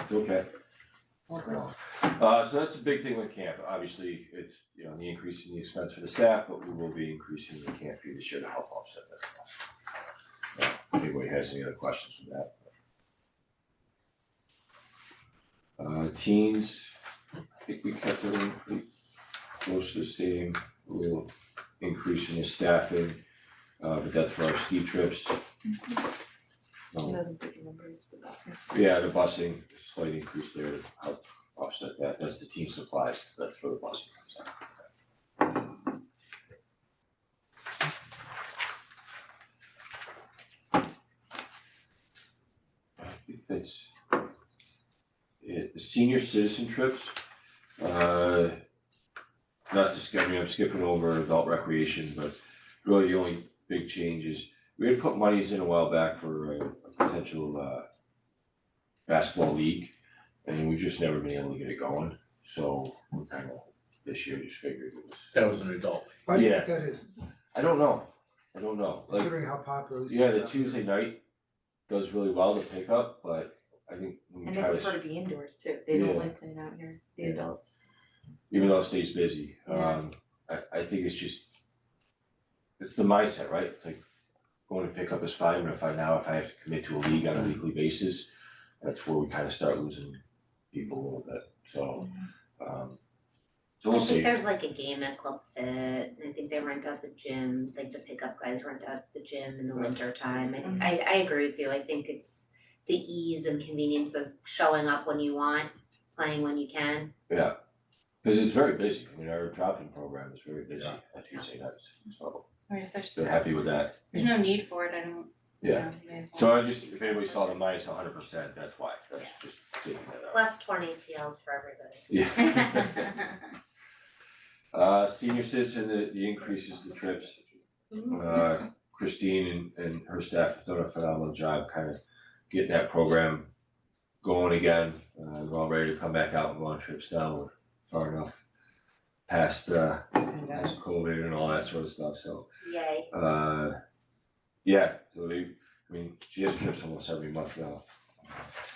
It's okay. Uh, so that's a big thing with camp, obviously, it's, you know, the increase in the expense for the staff, but we will be increasing the camp fee this year to help offset that. cost. Uh, If anybody has any other questions from that. Uh, teens, I think we kept them pretty close to the same, we'll increase in the staffing, uh, but that's for our ski trips. Um, yeah, the busing, slight increase there to help offset that, that's the team supplies, that's where the busing comes out. I think that's it, the senior citizen trips, uh, not to skip, I mean, I'm skipping over adult recreation, but really the only big change is, we had put monies in a while back for a a potential, uh, basketball league, and we've just never been able to get it going, so we kind of, this year just figured it was. That was an adult. Why do you Yeah. think that is, I don't know, I don't know, like, considering how popular this is? yeah, the out Tuesday there? night does really well to pick up, but I think when we And they try to, prefer s- to be indoors too, they don't Yeah. like playing out here, the Yeah. adults. even though it stays busy, Yeah. um, I I think it's just. It's the mindset, right, it's like going to pick up is fine, but if I now, if I have to commit to a league on a weekly basis, that's where we kind of start losing people a little bit, so, um. So I we'll see. think there's like a game at Club Fit, and I think they rent out the gym, like the pickup guys rent out the gym in the Right. Mm-hmm. winter time, I I I agree with you, I think it's the ease and convenience of showing up when you want, playing when you can, Cause it's very busy, I mean, our drop-in program is very busy on Yeah. Tuesday nights, so Or if Oh, there's, they're happy with that. there's no need for it, I don't, you Yeah. know, may as well. So I just, if anybody saw the minus hundred percent, that's why, that's just taking that out. plus twenty ACLs for everybody. Yeah. Uh, senior citizen, the, the increases the trips, uh, Christine and, and her staff have done a phenomenal job kind of getting that program going again. Uh, we're all ready to come back out and go on trips now, we're far enough past, uh, past COVID and all that sort of stuff, so. Yay, Uh, yeah, so they, I mean, she has trips almost every month now.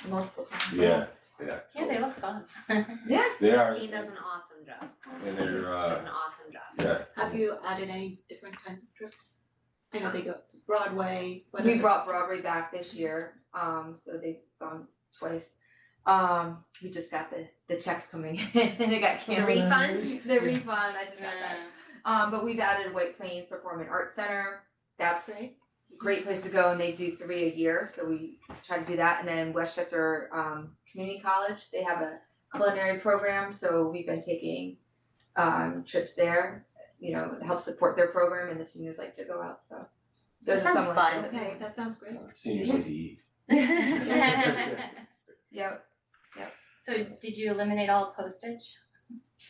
Multiple times. Yeah, yeah. Yeah, they look fun. They are, Christine does an awesome job, and they're, she does uh, an awesome job. yeah, Have you added any different kinds of trips? I know they go Broadway, whatever. We brought Broadway back this year, um, so they've gone twice. Um, we just got the, the checks coming in and it got The canceled. refund, The refund, I just got that. Um, but we've added White Plains Performing Arts Center. That's Great. a great place to go, and they do three a year, so we try to do that. And then Westchester um, Community College, they have a culinary program, so we've been taking um, trips there. You know, to help support their program, and the seniors like to go out. So those That are sounds some of fun. the- Okay, that sounds great. seniors like to eat. Yep. So did you eliminate all postage?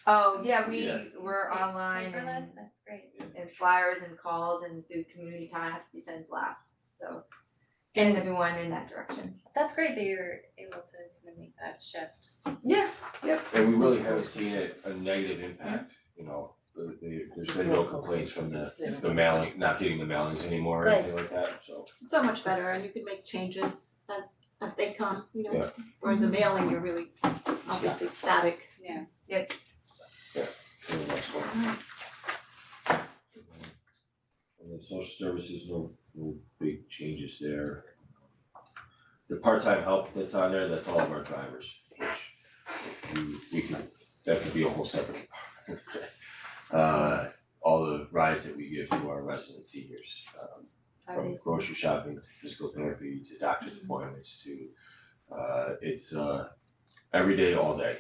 Oh yeah, we Yeah. were Pa- online and, Paperless, that's great. and flyers and calls and through community kind has to be sent blasts. So getting everyone in that direction. That's great that you're able to kind of make that shift. Yeah. And we really haven't seen a, a negative impact, Mm-hmm. you know, there, there- there's been no complaints from the, the mailing, not getting the mailings anymore or Good. anything like that, so. It's so much better and you can make changes as as they come, you know. Yeah. Whereas a mailing, you're really obviously static. for the next one. And then social services, no, no big changes there. The part-time help that's on there, that's all of our drivers, which we, we could, that could be a whole separate department. Uh, all the rides that we give to our resident seniors, um, from grocery shopping, to physical therapy, to doctor's appointments, to, uh, it's, uh, every day, all day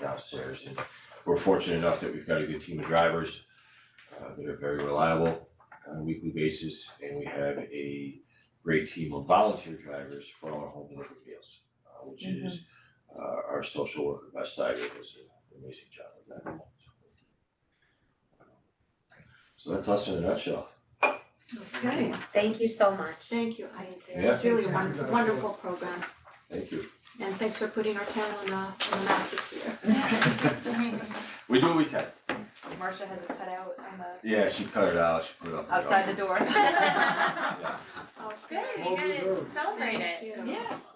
downstairs. And we're fortunate enough that we've got a good team of drivers uh, that are very reliable on a weekly basis, and we have a great team of volunteer drivers for all our home delivery meals, uh, which is uh, our social worker, Best Tiger, does an amazing job of that. So that's us in a nutshell. Okay, Thank you so much. thank you. I Yeah. it's really a Thank you won- guys. wonderful program Thank you. and thanks for putting our town on the on the map this year. We do what we can. Marcia has a cutout on the Yeah, she cut it out, she put it up. in the outside the door. oven. Yeah. Oh, Good, Well you gotta deserved. celebrate Thank it. you. Yeah.